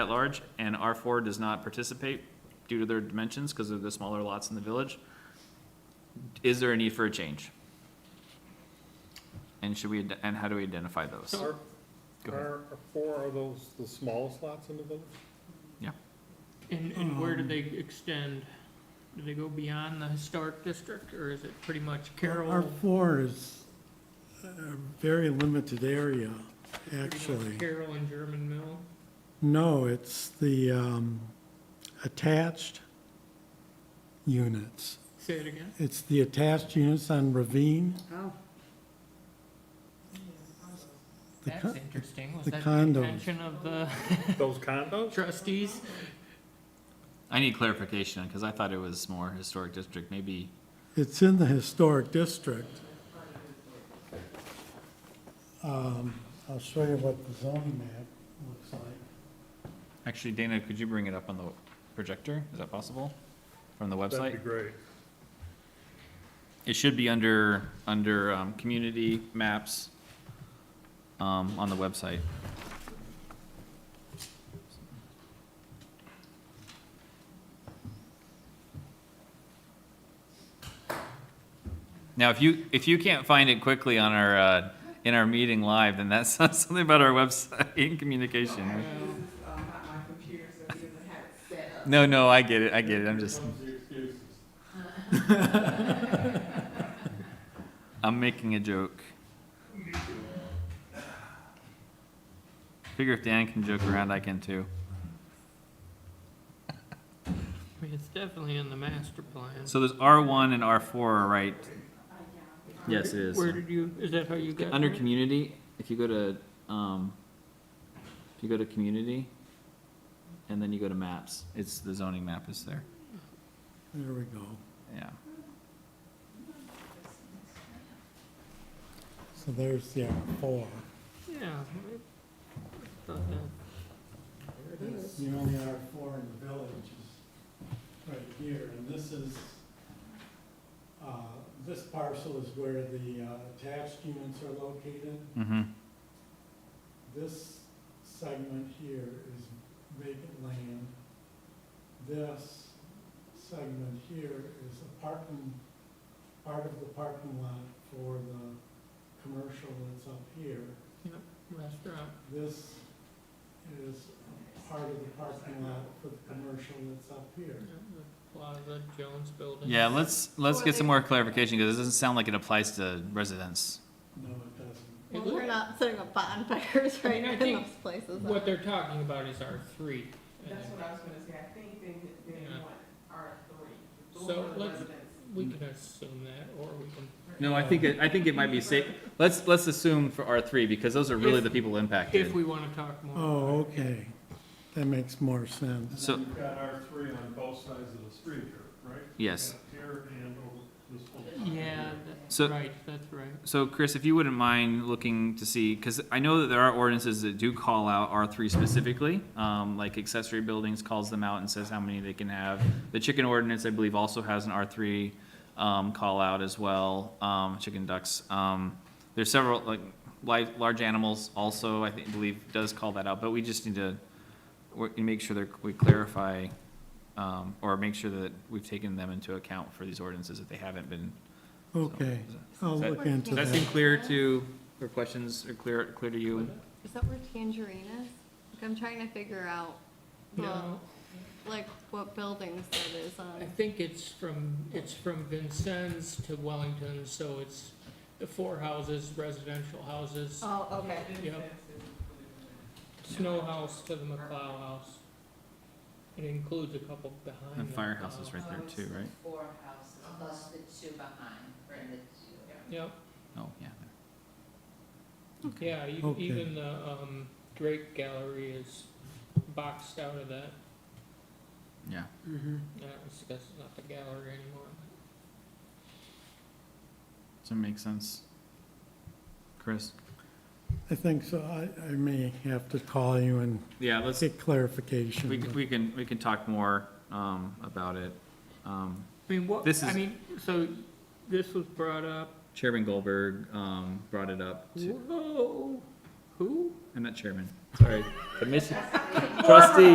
at large, and R four does not participate due to their dimensions because of the smaller lots in the village. Is there a need for a change? And should we, ad- and how do we identify those? Are, Go ahead. are four of those the smallest lots in the village? And, and where um, do they extend? Do they go beyond the historic district, or is it pretty much Our Carroll? floor is a very limited area, pretty much actually. Carroll and German Mill? No, it's the um, attached units. Say it again? It's the attached units on Ravine. Oh. The That's con- interesting. Was the that the condos. intention of the Those condos? trustees? I need clarification because I thought it was more historic district, maybe. It's in the historic district. Um, I'll show you what the zoning map looks like. Actually, Dana, could you bring it up on the projector? Is that possible? From the That'd be website? great. It should be under, under, um, community maps, um, on the website. Now, if you, if you can't find it quickly on our, uh, in our meeting live, then that's something about our website and communication. um, not my computer, so we didn't have it set up. No, no, I get it, I get it, I'm just, I'm making a joke. Figure if Dan can joke around, I can too. I mean, it's definitely in the master plan. So there's R1 and R4, right? Yes, it is. Where did you, is that how you got? Under there? community, if you go to, um, if you go to community, and then you go to maps, it's, the zoning map is there, There we go. yeah. So there's the R4. Yeah. I thought that- The only R4 in the village is right here, and this is, uh, this parcel is where the uh, attached units are located. Mm-hmm, This segment here is vacant land. This segment here is a parking, part of the parking lot for the commercial that's up here. Restaurant. This is part of the parking lot for the commercial that's up here. yeah, the Plaza Jones Building. yeah, let's, let's get some more clarification, because it doesn't sound like it applies to residents. No, it doesn't. It Well, looks- we're not setting up bonfires right I now in think those places. What they're talking about is R three. That's what I was gonna say, I think they, they Yeah. want R three. So let's- We can assume that, or we can. No, I think, it- I think it might be safe, let's, let's assume for R3, because those are really the people If impacted. we wanna talk more. Oh, okay. That makes more sense. So- You've got R three on both sides of the street here, right? Yes, Here and over this whole. Yeah, that's So- right, that's right. so Chris, if you wouldn't mind looking to see, because I know that there are ordinances that do call out R3 specifically, um, like accessory buildings calls them out and says how many they can have. The chicken ordinance, I believe, also has an R3 um, call out as well, um, chicken ducks. Um, There's several, like, li- large animals also, I think, believe, does call that out, but we just need to we- make sure that we clarify um, or make sure that we've taken them into account for these ordinances if they haven't been. so- Okay, I'll Does that- look into Does that seem that. clear to, or questions are clear, clear to you? Is that where Tangerine is? Like, I'm trying to figure out, the No, like, what buildings that is I on. think it's from, it's from Vincennes to Wellington, so it's the four houses, residential houses, Oh, okay. Yep. snow house to the McLeod house. It includes a couple behind. And the firehouse McLeod. is right there too, right? Four houses, plus the two behind, for the two. Yep, Oh, yeah. yeah, e- Okay. even the, um, Drake Gallery is boxed out of that. Yeah. No, it's- That's not the gallery anymore. Does it make sense? Chris? I think so. I, I may have to call you and Yeah, let's, get clarification. we, can- we can, we can talk more, um, about it. Um, I mean, what, This I is- mean, so this was brought up, Chairman Goldberg, um, brought it up to, whoa, who? I'm not chairman, sorry. Commission, trustee.